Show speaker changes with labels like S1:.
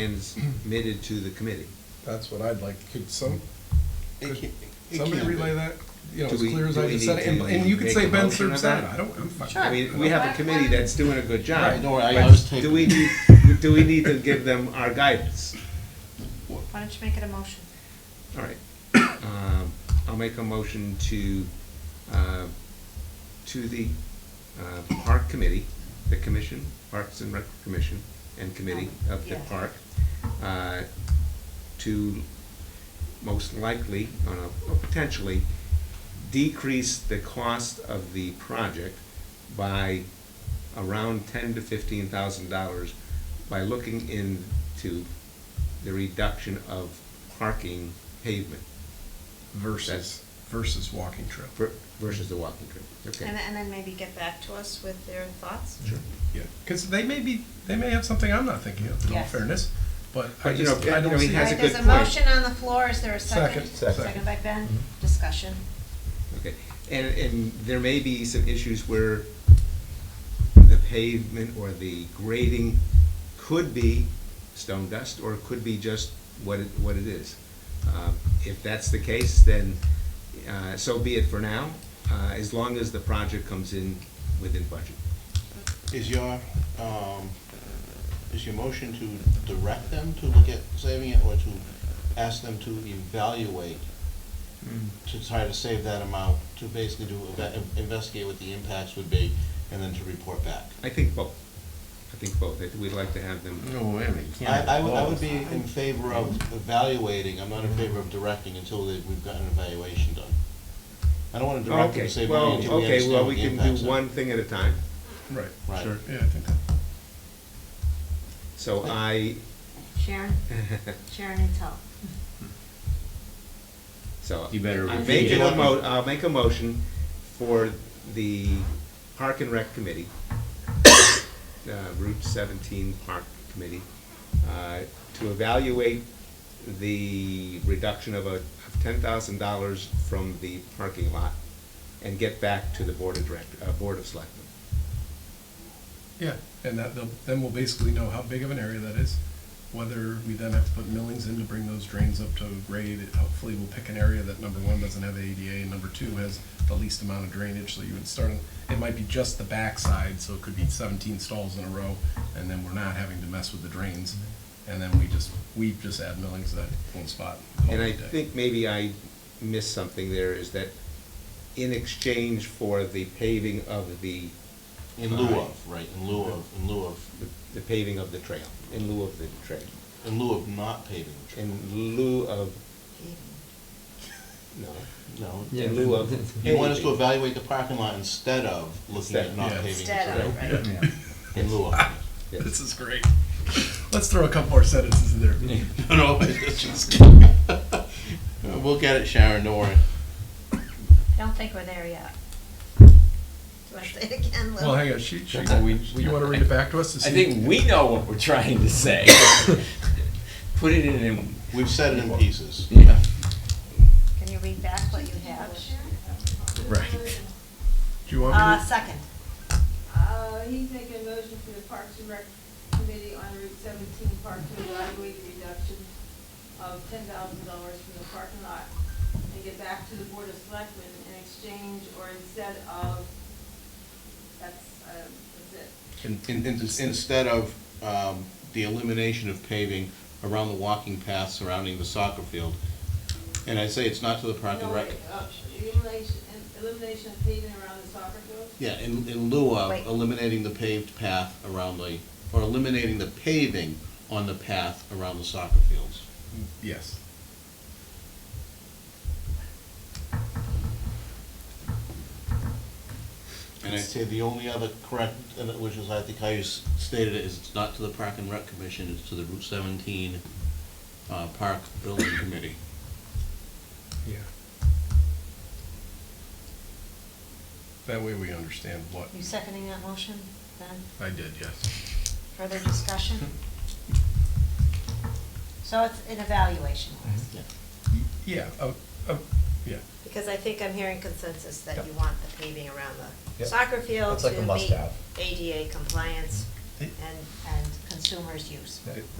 S1: transmitted to the committee.
S2: That's what I'd like, could some,
S3: It
S2: Could
S3: can't- it
S2: somebody
S3: can't be.
S2: relay that, you know,
S1: Do
S2: as
S1: we-
S2: clear as
S1: do
S2: I
S1: we
S2: just
S1: need
S2: said, it. and,
S1: to
S2: and you could
S1: make
S2: say
S1: a
S2: Ben
S1: motion
S2: serves
S1: on that?
S2: that, I don't, I'm fine.
S1: I mean, we have a committee that's doing a good
S3: Right,
S1: job.
S3: don't worry, I- I
S1: but
S3: was taking-
S1: Do we need, do we need to give them our guidance?
S4: Why don't you make it a motion?
S1: All right. Um, I'll make a motion to, uh, to the uh, Park Committee, the Commission, Parks and Rec Commission and Committee of the
S4: Yeah.
S1: Park, uh, to most likely, on a, or potentially, decrease the cost of the project by around ten to fifteen thousand dollars by looking into the reduction of parking pavement
S2: Versus, versus walking trail.
S1: ver- versus the walking trail.
S4: And,
S1: Okay.
S4: and then maybe get back to us with their thoughts?
S1: Sure.
S2: Yeah, because they may be, they may have something I'm not thinking of, in all
S4: Yes.
S2: fairness, but I
S1: But, you know,
S2: just, I
S1: I
S2: don't
S1: mean,
S2: see.
S1: has That's a
S4: Alright,
S1: good
S4: There's a
S1: point.
S4: motion on the floor, is there a second?
S2: Second. Second.
S4: Second by Ben, discussion.
S1: Okay, and, and there may be some issues where the pavement or the grading could be stone dust, or it could be just what it, what it is. Um, If that's the case, then, uh, so be it for now, uh, as long as the project comes in within budget.
S3: Is your, um, is your motion to direct them to look at saving it, or to ask them to evaluate,
S1: Hmm.
S3: to try to save that amount, to basically do, eva- investigate what the impacts would be, and then to report back?
S1: I think both, I think both, I think we'd like to have them,
S5: No, wait a minute, you can't have
S3: I, I would, I would
S5: both.
S3: be in favor of
S1: Hmm.
S3: evaluating, I'm not in favor of directing until that we've got an evaluation done. I don't wanna direct them
S1: okay,
S3: to save money
S1: well,
S3: until we
S1: okay,
S3: understand
S1: well,
S3: what
S1: we
S3: the
S1: can
S3: impacts
S1: do
S3: are.
S1: one thing at a time,
S2: Right,
S3: Right.
S1: sure.
S2: yeah, I think that.
S1: So I,
S4: Sharon, Sharon and Tal.
S1: So.
S5: You better
S1: I'm
S5: repeat
S1: making
S3: it.
S1: a mo, I'll make a motion for the Park and Rec Committee, uh, Route seventeen Park Committee, uh, to evaluate the reduction of a, of ten thousand dollars from the parking lot and get back to the Board of Direct, uh, Board of Selectmen.
S2: Yeah, and that, they'll- then we'll basically know how big of an area that is, whether we then have to put millings in to bring those drains up to grade. It- Hopefully, we'll pick an area that, number one, doesn't have ADA, and number two, has the least amount of drainage, so you would start, on- it might be just the backside, so it could be seventeen stalls in a row, and then we're not having to mess with the drains, and then we just, we just add millings to that one spot.
S5: Oh,
S2: call
S1: And
S2: it
S1: I
S2: a day.
S1: think maybe I missed something there, is that in exchange for the paving of the
S3: In lieu of, right, in lieu of, in lieu of,
S1: the- the paving of the trail, in lieu of the trail,
S3: in lieu of not paving the trail.
S1: in lieu of, no,
S3: No.
S1: in lieu of.
S3: You want us to
S1: paving.
S3: evaluate the parking lot instead Ah, of looking at not
S2: Instead.
S3: paving the
S4: Instead
S3: trail?
S4: of, right?
S3: In lieu of.
S1: Yes.
S2: This is great. Let's throw a couple more sentences in there.
S3: No, no, it's just. We'll get it, Sharon, don't worry.
S4: I don't think we're there yet. Do I say it again, Lou?
S2: Well, hang on, she, she, you wanna read it back to us to see?
S5: I think we know what we're trying to say. Put it in, in-
S3: We've said it in pieces.
S5: yeah,
S4: Can you read back what you have?
S5: right.
S2: Do you want me to?
S4: Uh, second.
S6: Uh, he's making a motion for the Parks and Rec Committee on Route seventeen Park to evaluate the reduction of ten thousand dollars from the parking lot and get back to the Board of Selectmen in exchange or instead of, that's, uh, that's it.
S3: In- in- in- Instead of um, the elimination of paving around the walking path surrounding the soccer field. And I say it's not to the park and
S6: No,
S3: rec.
S6: uh, Elimination, elimination of paving around the soccer field?
S3: Yeah, in, in lieu
S4: Wait.
S3: of eliminating the paved path around the, or eliminating the paving on the path around the soccer fields.
S2: Yes.
S3: And I'd say the only other correct, and it- which is, I think I s- stated it, is it's not to the Park and Rec Commission, it's to the Route seventeen, uh, Park Building Committee.
S2: Yeah. That way we understand what
S4: You seconding that motion, Ben?
S2: I did, yes.
S4: Further discussion? So it's an evaluation,
S3: Yeah.
S2: Yeah, uh, uh, yeah.
S4: because I think I'm hearing consensus that
S2: Yep.
S4: you want the paving around the
S2: Yep.
S4: soccer field
S2: That's like a
S4: to meet
S2: must-have.
S4: ADA compliance
S2: Eh.
S4: and, and consumers' use.